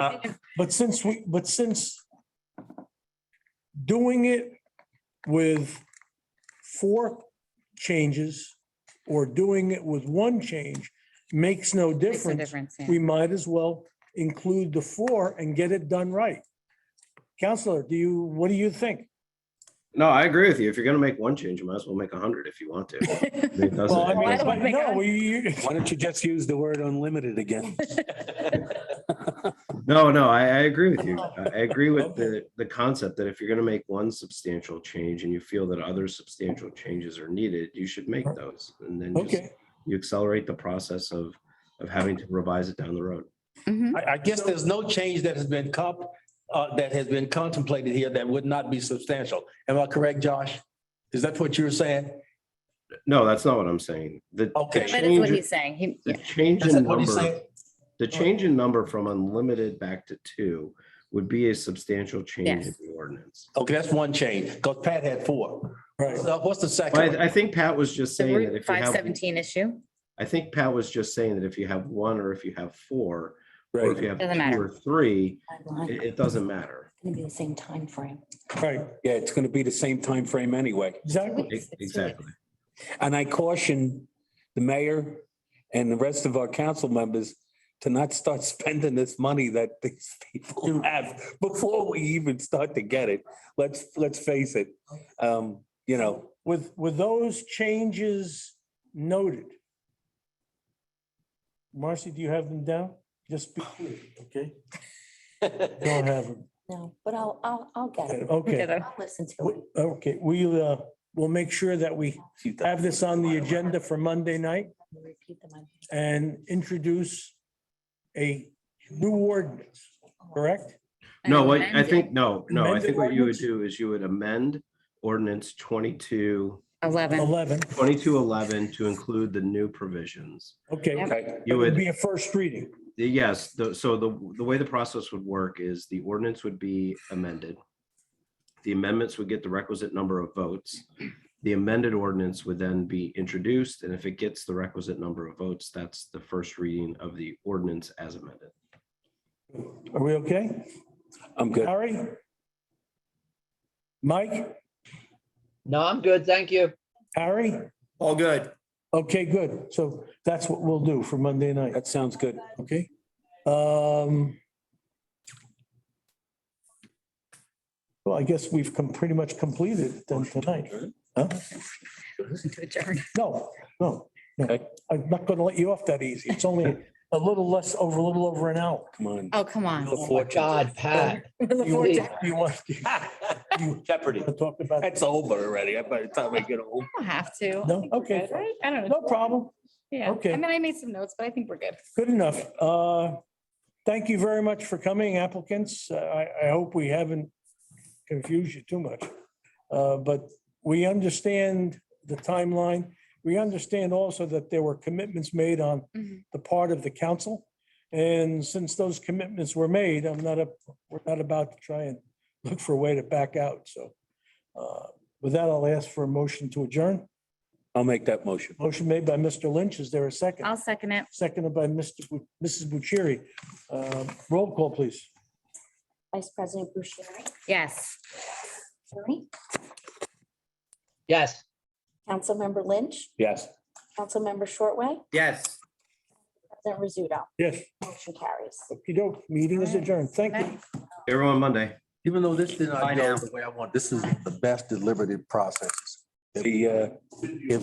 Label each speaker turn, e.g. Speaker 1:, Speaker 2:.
Speaker 1: Uh, But since we, but since doing it with four changes or doing it with one change makes no
Speaker 2: Makes no
Speaker 1: difference,
Speaker 2: difference. yeah.
Speaker 1: we might as well include the four and get it done right. Counselor, do you, what do you think?
Speaker 3: No, I agree with you. If you're gonna make one change, you might as well make a hundred if you want to. It doesn't-
Speaker 4: Well, I mean-
Speaker 3: it doesn't-
Speaker 1: But no, you,
Speaker 4: Why don't you just use the word unlimited again?
Speaker 3: No, no, I, I agree with you. I I agree with the, the concept that if you're gonna make one substantial change and you feel that other substantial changes are needed, you should make those. And then just,
Speaker 1: okay,
Speaker 3: you accelerate the process of, of having to revise it down the road. Mm-hmm.
Speaker 2: Mhm.
Speaker 4: I, I guess there's no change that has been comp, uh, that has been contemplated here that would not be substantial. Am I correct, Josh? Is that what you were saying?
Speaker 3: No, that's not what I'm saying. The,
Speaker 4: Okay.
Speaker 3: the
Speaker 2: That is what
Speaker 3: change,
Speaker 2: he's saying. He,
Speaker 3: the
Speaker 2: yeah.
Speaker 3: change
Speaker 4: That's
Speaker 3: in
Speaker 4: what he's
Speaker 3: number,
Speaker 4: saying?
Speaker 3: the change in number from unlimited back to two would be a substantial change in
Speaker 2: Yes.
Speaker 3: the ordinance.
Speaker 4: Okay, that's one change, because Pat had four.
Speaker 1: right.
Speaker 4: So What's the
Speaker 3: Well,
Speaker 4: second?
Speaker 3: I, I think Pat was just
Speaker 2: the
Speaker 3: saying that
Speaker 2: Route
Speaker 3: if you
Speaker 2: five
Speaker 3: have,
Speaker 2: seventeen issue.
Speaker 3: I think Pat was just saying that if you have one or if you have four, or if
Speaker 4: Right,
Speaker 3: you have
Speaker 2: Doesn't
Speaker 3: two
Speaker 2: matter.
Speaker 3: or three,
Speaker 5: It's
Speaker 3: it, it doesn't matter.
Speaker 5: gonna be the same time frame.
Speaker 1: Right,
Speaker 6: Yeah, it's going to be the same time frame anyway.
Speaker 1: exactly.
Speaker 3: E- Exactly.
Speaker 6: And I caution the mayor and the rest of our council members to not start spending this money that these people have before we even start to get it. Let's, let's face it. Um, You know,
Speaker 1: With, with those changes noted. Marcy, do you have them down? Just be clear, okay? Don't have them.
Speaker 5: No, but I'll, I'll, I'll get it.
Speaker 1: Okay,
Speaker 2: Ditto.
Speaker 5: I'll listen to it.
Speaker 1: W- okay, we, uh, we'll make sure that we have this on the agenda for Monday night
Speaker 5: I'll repeat them.
Speaker 1: and introduce a new ordinance, correct?
Speaker 3: No,
Speaker 2: And
Speaker 3: what, I
Speaker 2: amend it.
Speaker 3: think, no, no, I
Speaker 1: Amended
Speaker 3: think what you would
Speaker 1: ordinance?
Speaker 3: do is you would amend ordinance 22
Speaker 2: Eleven.
Speaker 1: Eleven,
Speaker 3: 2211 to include the new provisions.
Speaker 1: okay.
Speaker 2: Yep.
Speaker 6: okay,
Speaker 3: You
Speaker 1: It'd
Speaker 3: would,
Speaker 1: Be a first reading,
Speaker 3: yes, the- so the, the way the process would work is the ordinance would be amended. The amendments would get the requisite number of votes. The amended ordinance would then be introduced, and if it gets the requisite number of votes, that's the first reading of the ordinance as amended.
Speaker 1: are we okay?
Speaker 6: I'm good.
Speaker 1: Harry? Mike?
Speaker 7: No, I'm good. Thank you.
Speaker 1: Harry?
Speaker 8: All good.
Speaker 1: Okay, good. So that's what we'll do for Monday night,
Speaker 6: That sounds good.
Speaker 1: okay? Um. Well, I guess we've come, pretty much completed it then tonight. Huh?
Speaker 2: To adjourn.
Speaker 1: No, no, no.
Speaker 6: Okay.
Speaker 1: I'm not gonna let you off that easy. It's only a little less, over, a little over an hour.
Speaker 6: Come on.
Speaker 2: Oh, come on.
Speaker 7: Oh my God, Pat.
Speaker 1: You
Speaker 7: Indeed.
Speaker 1: you want you
Speaker 4: Jeopardy.
Speaker 1: wanna talk about,
Speaker 6: That's over already. By the time I get home.
Speaker 2: Don't have to. I
Speaker 1: No?
Speaker 2: think we're
Speaker 1: Okay.
Speaker 2: good, right? I don't know.
Speaker 1: no problem.
Speaker 2: Yeah.
Speaker 1: okay.
Speaker 2: I mean, I made some notes, but I think we're good.
Speaker 1: Good enough. Uh, Thank you very much for coming applicants. Uh, I, I hope we haven't confused you too much. Uh, But we understand the timeline. We understand also that there were commitments made on
Speaker 2: Mhm.
Speaker 1: the part of the council. And since those commitments were made, I'm not, up. we're not about to try and look for a way to back out. So uh, with that, I'll ask for a motion to adjourn.
Speaker 6: I'll make that motion.
Speaker 1: Motion made by Mr. Lynch. Is there a second?
Speaker 2: I'll second it.
Speaker 1: seconded by Mr. Bu- Mrs. Bucieri. Uh, Roll call, please.
Speaker 5: Vice President Bucieri,
Speaker 2: Yes.
Speaker 5: Tony,
Speaker 7: Yes.
Speaker 5: Councilmember Lynch,
Speaker 6: Yes.
Speaker 5: Councilmember Shortway,
Speaker 8: Yes.
Speaker 5: President Rizzuto.
Speaker 1: Yes.
Speaker 5: Motion carries.
Speaker 1: okey meeting is adjourned. Thank you.
Speaker 3: Everyone Monday.
Speaker 4: Even though this did
Speaker 8: Bye
Speaker 4: not
Speaker 8: now.
Speaker 4: go the way I want, this is the best deliberative process.
Speaker 6: The, uh,